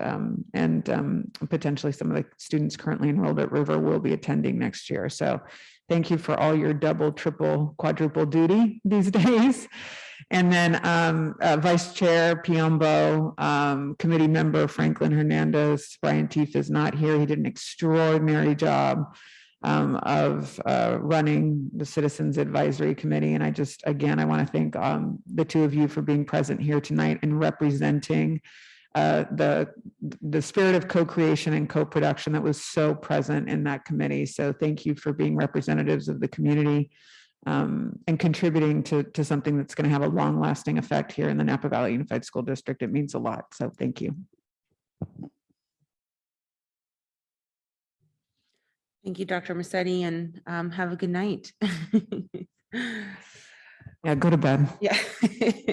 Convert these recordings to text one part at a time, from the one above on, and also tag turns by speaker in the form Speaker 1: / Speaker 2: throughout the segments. Speaker 1: um, and um, potentially some of the students currently enrolled at River will be attending next year. So thank you for all your double, triple, quadruple duty these days. And then um, uh, Vice Chair Piombo, um, Committee Member Franklin Hernandez, Brian Teef is not here. He did an extraordinary job um, of uh, running the Citizens Advisory Committee. And I just, again, I want to thank um, the two of you for being present here tonight and representing uh, the, the spirit of co-creation and co-production that was so present in that committee. So thank you for being representatives of the community um, and contributing to, to something that's going to have a long lasting effect here in the Napa Valley Unified School District. It means a lot. So thank you.
Speaker 2: Thank you, Dr. Massetti, and um, have a good night.
Speaker 1: Yeah, go to bed.
Speaker 2: Yeah.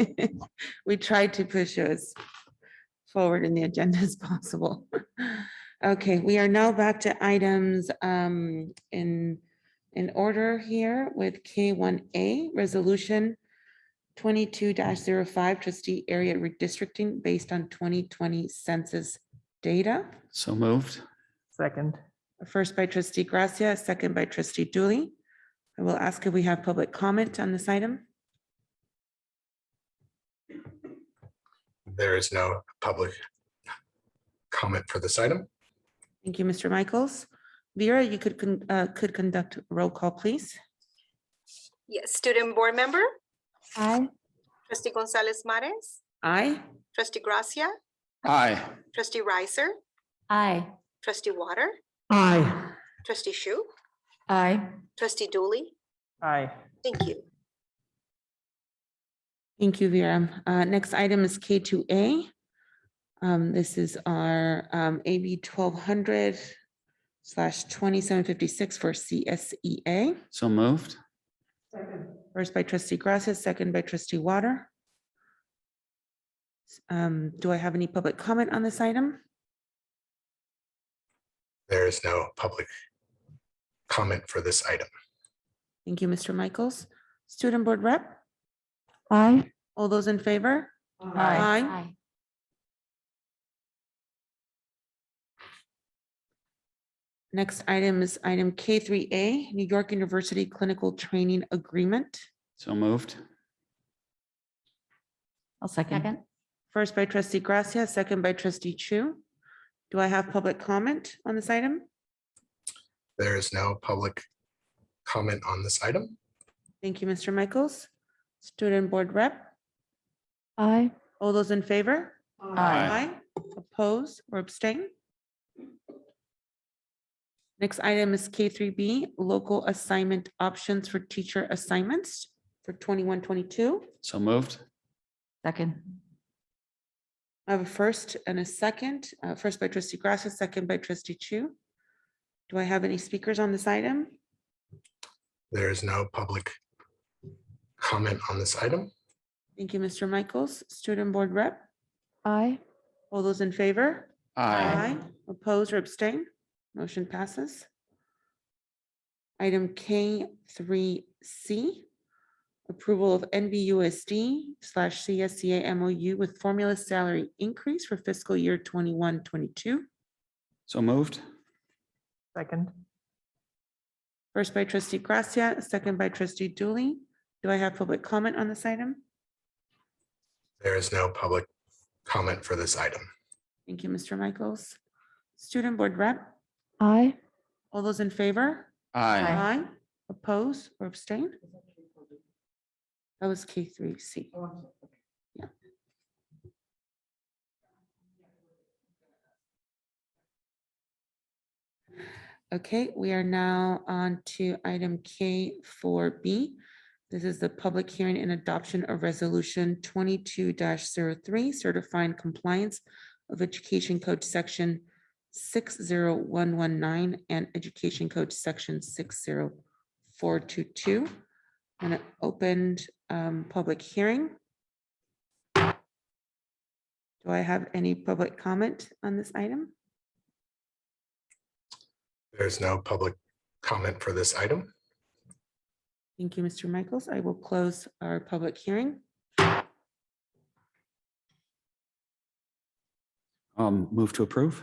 Speaker 2: We tried to push it as forward in the agenda as possible. Okay, we are now back to items um, in, in order here with K1A Resolution 22-05 trustee area redistricting based on 2020 census data.
Speaker 3: So moved.
Speaker 4: Second,
Speaker 2: First by trustee Gracia, second by trustee Dooley. I will ask if we have public comment on this item.
Speaker 5: There is no public comment for this item.
Speaker 2: Thank you, Mr. Michaels. Vera, you could, con- uh, could conduct roll call, please.
Speaker 6: Yes, student board member,
Speaker 2: Aye.
Speaker 6: trustee Gonzalez Mares,
Speaker 2: Aye.
Speaker 6: trustee Gracia,
Speaker 3: Aye.
Speaker 6: trustee Ricer,
Speaker 7: Aye.
Speaker 6: trustee Water,
Speaker 1: Aye.
Speaker 6: trustee Shu,
Speaker 7: Aye.
Speaker 6: trustee Dooley.
Speaker 4: aye,
Speaker 6: Thank you.
Speaker 2: Thank you, Vera. Uh, Next item is K2A. Um, This is our um, AB 1200 slash 2756 for CSEA.
Speaker 3: So moved.
Speaker 2: First by trustee Gracia, second by trustee Water. Um, do I have any public comment on this item?
Speaker 5: There is no public comment for this item.
Speaker 2: Thank you, Mr. Michaels. Student Board Rep,
Speaker 1: Aye.
Speaker 2: all those in favor? Aye. Next item is item K3A, New York University Clinical Training Agreement.
Speaker 3: So moved.
Speaker 7: I'll second.
Speaker 2: First by trustee Gracia, second by trustee Chu. Do I have public comment on this item?
Speaker 5: There is no public comment on this item.
Speaker 2: Thank you, Mr. Michaels. Student Board Rep,
Speaker 1: Aye.
Speaker 2: all those in favor? Aye. Oppose or abstain? Next item is K three B, local assignment options for teacher assignments for 21-22.
Speaker 3: So moved.
Speaker 7: Second.
Speaker 2: I have a first and a second, uh, first by trustee Gracia, second by trustee Chu. Do I have any speakers on this item?
Speaker 5: There is no public comment on this item.
Speaker 2: Thank you, Mr. Michaels. Student Board Rep,
Speaker 1: Aye.
Speaker 2: all those in favor?
Speaker 3: Aye.
Speaker 2: Oppose or abstain? Motion passes. Item K three C, approval of NBUSD slash CSCA MOU with formula salary increase for fiscal year 21-22.
Speaker 3: So moved.
Speaker 4: second,
Speaker 2: First by trustee Gracia, second by trustee Dooley. Do I have public comment on this item?
Speaker 5: There is no public comment for this item.
Speaker 2: Thank you, Mr. Michaels. Student Board Rep,
Speaker 1: Aye.
Speaker 2: all those in favor?
Speaker 3: Aye.
Speaker 2: Aye. Oppose or abstain? That was K three C. Yeah. Okay, we are now on to item K four B. This is the public hearing and adoption of resolution twenty-two 3 certifying compliance of Education Code Section six zero one one nine and Education Code Section six zero four two two. And it opened um public hearing. Do I have any public comment on this item?
Speaker 5: There is no public comment for this item.
Speaker 2: Thank you, Mr. Michaels. I will close our public hearing.
Speaker 3: Um, move to approve?